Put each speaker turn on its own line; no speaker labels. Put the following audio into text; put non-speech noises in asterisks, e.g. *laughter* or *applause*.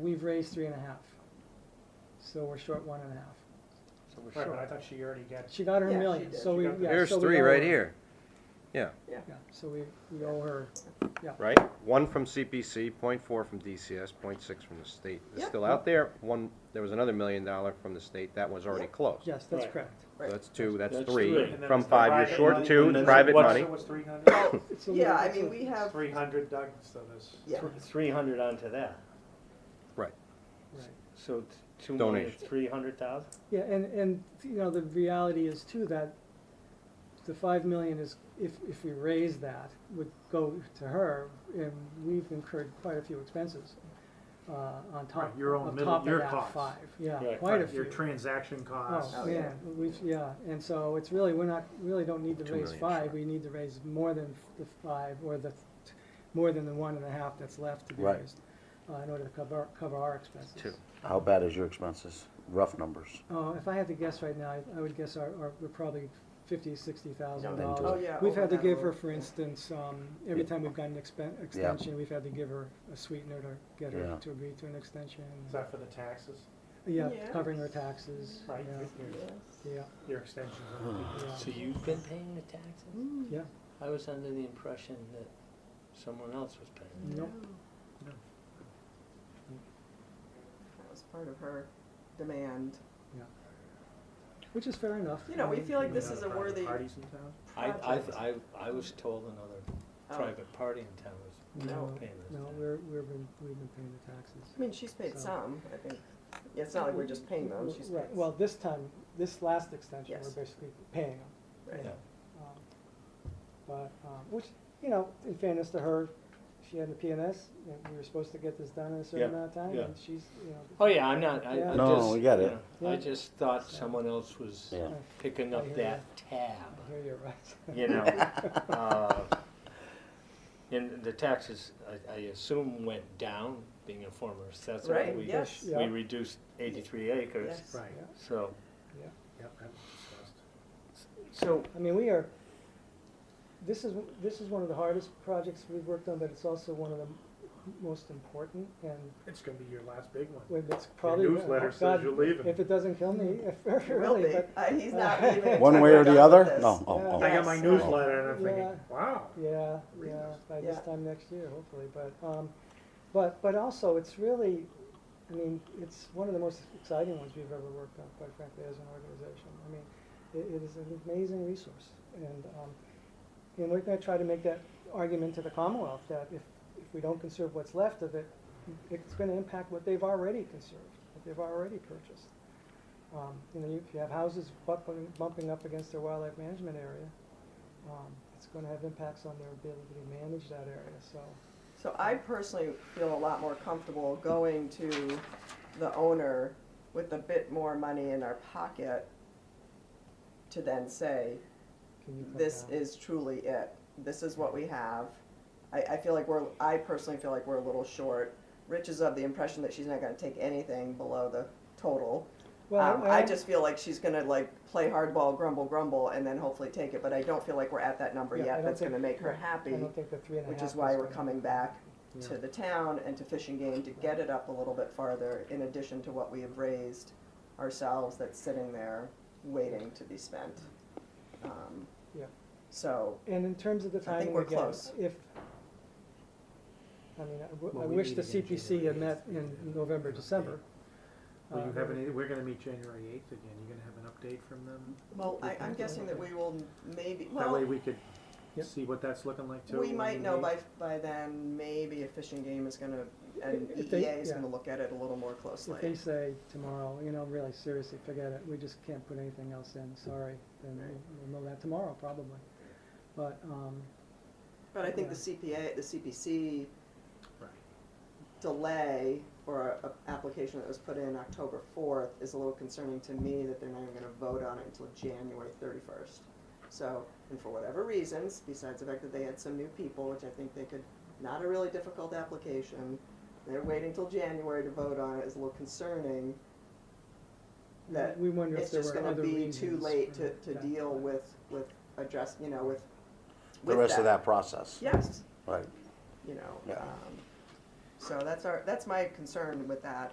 We've raised three and a half, so we're short one and a half.
So we're
Right, but I
short.
thought she already got,
She got her
Yeah, she
million,
did.
so
She
we, yeah.
got the-
so
Here's
we
three
owe
right
her.
here,
Yeah, so we, we owe her,
right? One from CPC, point four from DCS, point six from the state. It's
Yep.
still out there. One, there was another million dollar from the state. That was already closed.
yes, that's
Right.
correct.
So that's two, that's
That's
three.
three.
and then
From
it's the
five, you're
private
short
money,
two,
and then
private
what's-
money.
so it's three hundred?
*laughs* It's a
Oh, Yeah,
little-
I
it's a-
mean, we have,
Three hundred, Doug, so this.
yeah,
Three hundred onto that,
right.
so t- two million,
Donation.
three hundred thousand?
Yeah, and, and, you know, the reality is too that the five million is, if, if we raise that, would go to her, and we've incurred quite a few expenses, uh, on top,
Right, your own
on
middle-
top of
your
that
costs.
five, yeah,
Right,
quite a few.
Your transaction costs.
Oh,
Oh,
yeah, we, yeah, and so it's really, we're not, really don't need to
Two
raise
million,
five,
sure.
we need to raise more than the five, or the, more than the one and a half that's left to be
Right.
raised, uh, in order to cover, cover our expenses.
Two.
How bad is your expenses? Rough numbers.
Oh, if I had to guess right now, I- I would guess our, our, we're probably fifty, sixty thousand
No,
dollars.
then do it.
Oh, yeah,
We've had to
over that
give her,
road.
for instance, um, every time we've gotten an expen- extension, we've had to give her a sweetener to get her
Yeah.
to agree to an extension.
Is that for the taxes?
Yeah,
Yeah.
covering her taxes,
Right,
yeah,
your-
yes.
yeah,
your extensions.
yeah.
So you've been paying the
Hmm?
taxes?
Mm,
Yeah.
I was under the impression that someone else was paying.
Nope.
No.
That was part of her demand.
Which is fair enough.
You know, we
Um,
feel like this is a worthy
Parties in town?
Hmm.
I,
project.
I, I, I was told another
Oh.
private party in town was
No,
paying those
no,
taxes.
we're, we're been, we've been paying the taxes.
I mean, she's paid
So-
some, I think. Yeah, it's not like we're just paying them, she's paid.
Right, well, this time, this last extension,
Yes.
we're basically paying them.
Right.
Yeah. Um, But, um, which, you know, in fairness to her, she had the PNS, and we were supposed to get this done in a certain
Yeah,
amount of time,
yeah.
and she's, you know.
Oh, yeah, I'm not, I, I
Yeah.
just.
No, we get
you
it.
know, I
Yeah.
just thought someone else was
Yeah.
picking
I
up
hear
that
I
tab,
hear you're right. *laughs*
you know? Uh, And the taxes, I, I assume went down, being a former assessor.
Right,
We-
yes.
Yeah.
We reduced eighty-three acres,
Yes.
Right,
Yeah.
so,
yep, that was
so
I mean, we are, this is, this is one of the hardest projects we've worked on, but it's also one of the m- most important, and
discussed. It's gonna be your last big one.
when it's
Your
probably.
newsletter says
God,
you're leaving.
If it doesn't kill me,
*laughs*
*laughs*
It will
really,
be.
but,
Uh, He's not *laughs* leaving. until
One way
we're
or
done
the
with
other?
this.
No, oh,
I
Yeah.
oh.
got my
Yes.
newsletter and I'm thinking,
Yeah.
wow.
yeah,
Read
yeah,
this.
by this
Yeah.
time next year, hopefully, but, um, but, but also, it's really, I mean, it's one of the most exciting ones we've ever worked on, quite frankly, as an organization. I mean, it, it is an amazing resource, and, um, and we're gonna try to make that argument to the Commonwealth, that if, if we don't conserve what's left of it, it's gonna impact what they've already conserved, what they've already purchased. Um, you know, you- if you have houses bumping, bumping up against their wildlife management area, um, it's gonna have impacts on their ability to manage that area, so.
So I personally feel a lot more comfortable going to the owner with a bit more money in our pocket to then say,
can you cut
this
down?
is truly it. This is what we have. I, I feel like we're, I personally feel like we're a little short. Rich is of the impression that she's not gonna take anything below the total.
Well,
Um, I just feel like she's gonna like play hardball, grumble, grumble, and then hopefully take it, but I don't feel like we're at that number
Yeah, I
yet
don't
that's
think-
gonna make her
right.
happy,
I don't think the three and a half.
which is why we're
gonna-
coming back to
Yeah.
the town and to fishing game to get it up a little bit farther in addition to what we have raised ourselves that's sitting there waiting to be spent. Um,
Yeah.
So,
And in terms of the
think
timing
we're
again,
close.
if, I mean, I w- I
Well, we
wish
meet
the
again
CPC had
January
met
eighth.
in November, December.
Will you
Uh,
have any, we're gonna meet January eighth again. You gonna have an update from them?
well, I, I'm guessing that we will maybe,
That way
well,
we could
Yep.
see what that's looking like too.
we
when
might know
meet.
by, by then, maybe a fishing game is gonna, and
If they-
EEA is
yeah.
gonna look at it a little more
If they
closely.
say tomorrow, you know, really seriously, forget it, we just can't put anything else in, sorry, then
Right.
we'll- we'll know that tomorrow probably. But, um,
But I think the CPA, the CPC delay or a- a application that was put in October fourth is a little concerning to me that they're not even gonna vote on it until January thirty-first. So, and for whatever reasons, besides the fact that they had some new people, which I think they could, not a really difficult application, they're waiting till January to vote on it is a little concerning. That
we wonder if
It's
there
just
were
gonna
other
be too
reasons
late
for
to, to
that.
deal with, with address, you know, with,
The
with
rest of that process.
Yes,
Right.
you know,
Yeah.
um, So that's our, that's my concern with that,